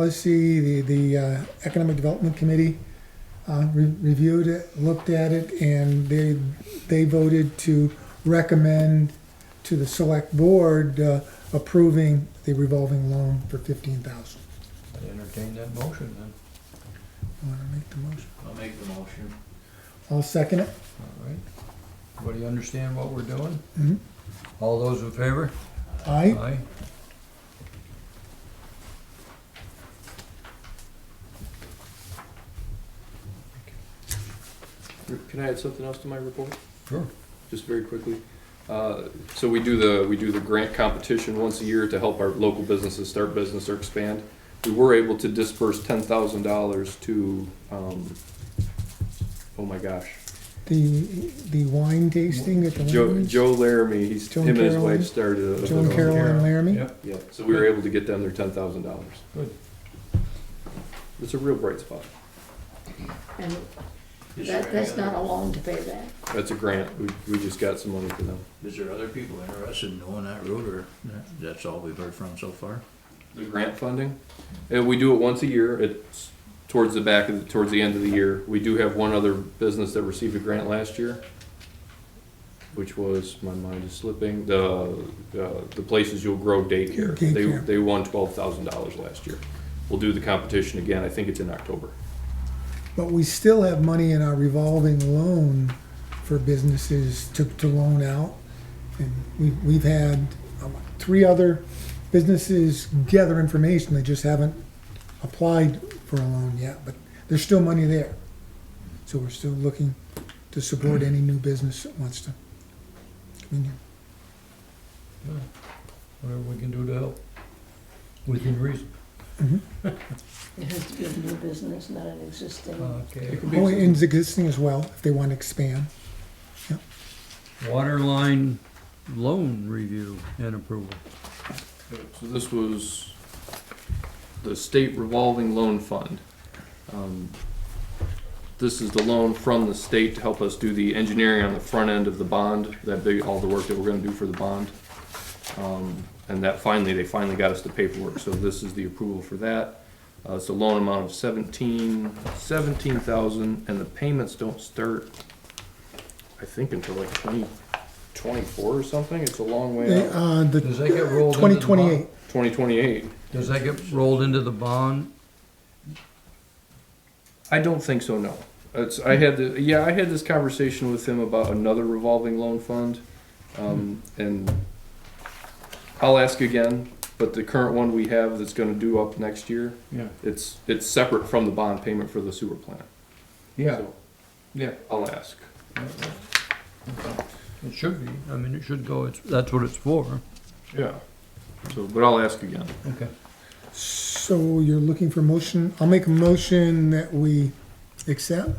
policy, the, the uh, Economic Development Committee uh, re- reviewed it, looked at it, and they, they voted to recommend to the select board uh, approving the revolving loan for fifteen thousand. I'd entertain that motion then. Want to make the motion? I'll make the motion. I'll second it. All right. Everybody understand what we're doing? Mhm. All those in favor? Aye. Aye. Can I add something else to my report? Sure. Just very quickly. Uh, So we do the, we do the grant competition once a year to help our local businesses start business or expand. We were able to disperse ten thousand dollars to, um, oh my gosh, The, the wine tasting at the Joe, Wegmans, Joe Laramie, he's, Joe him and his Caroline. wife started a. Joe and Carol and Laramie. Yep, Yeah, so we were able to get them their ten thousand dollars. Good. It's a real bright spot. And that, that's not a loan to pay that. That's a grant. We, we just got some money for them. Is there other people interested in doing that route, or that- that's all we've heard from so far? the grant funding. And we do it once a year. It's towards the back of the, towards the end of the year. We do have one other business that received a grant last year, which was my mind is slipping. The uh, the places you'll grow daycare. They Daycare. they won twelve thousand dollars last year. We'll do the competition again. I think it's in October. But we still have money in our revolving loan for businesses to, to loan out. And we, we've had um, three other businesses gather information, they just haven't applied for a loan yet, but there's still money there. So we're still looking to support any new business that wants to. come in here. whatever we can do to help, within reason. It has to be a new business, not an existing. Okay. Oh, and existing as well, if they want to expand. Waterline loan review and approval. So this was the state revolving loan fund. Um, This is the loan from the state to help us do the engineering on the front end of the bond, that big, all the work that we're gonna do for the bond. Um, And that finally, they finally got us the paperwork, so this is the approval for that. Uh, it's a loan amount of seventeen, seventeen thousand, and the payments don't start, I think, until like twenty, twenty-four or something, it's a long way They- out. uh, the Does that get rolled into the twenty bond? twenty-eight, Twenty twenty-eight. Does that get rolled into the bond? I don't think so. No, it's, I had the, yeah, I had this conversation with him about another revolving loan fund, um, and I'll ask again. But the current one we have that's going to due up next year, Yeah. it's it's separate from the bond payment for the sewer plant. Yeah, So, yeah, I'll ask. it should be, I mean, it should go, it's, that's what it's for. Yeah. So, but I'll ask again. Okay. so you're looking for motion, I'll make a motion that we accept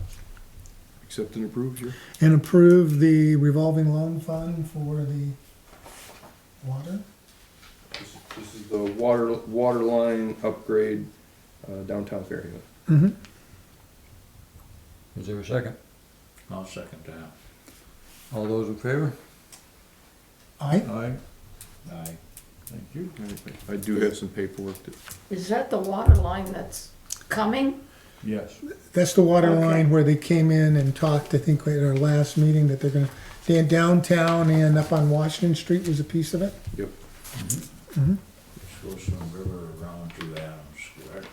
Accept and approve here. and approve the revolving loan fund for the water. This, this is the water water line upgrade uh, downtown Fairhaven. Mhm. Is there a second? I'll second that. All those in favor? Aye, Aye. Aye. Thank you. I do have some paperwork to Is that the water line that's coming? Yes. that's the water Okay. line where they came in and talked, I think, at our last meeting, that they're gonna, down- downtown and up on Washington Street was a piece of it. Yep. Which goes from River around to Adams, correct?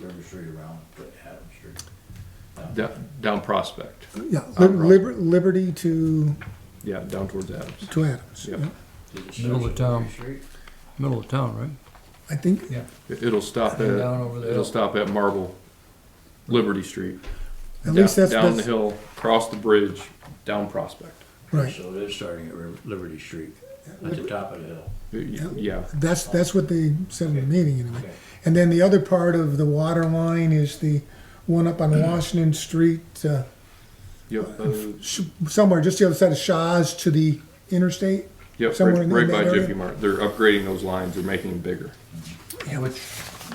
River Street around to Adams Street. down, down Prospect. Yeah, Uh, Liber- Liberty to, Yeah, down towards Adams. to Adams. Yep. yeah. Does it Middle of start at town. Liberty Street? Middle of town, right? I think, It- It'll stop And down at, over the it'll hill. stop at Marble, Liberty Street. at least Down- that's, Down the that's, hill, cross the bridge, down Prospect. right. So it is starting at River- Liberty Street, at the top of the hill. Y- y- Yeah, That's, that's what they said in the meeting anyway. Okay. And then the other part of the water line is the one up Mm. on Washington Street, uh, yep, uh, sh- somewhere just the other side of Shaw's to the interstate. yep, Somewhere right in right that by area? Jiffy Mart. They're upgrading those lines, they're making them bigger. Yeah. Which,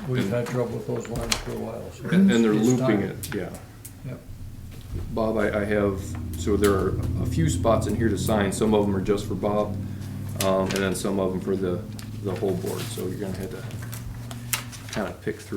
we've had trouble with those lines for a while, so. And and they're Mm-hmm. it's looping time. it, yeah. Yep. Bob, I, I have, so there are a few spots in here to sign. Some of them are just for Bob, um, and then some of them for the, the whole board, so you're gonna have to kind of pick through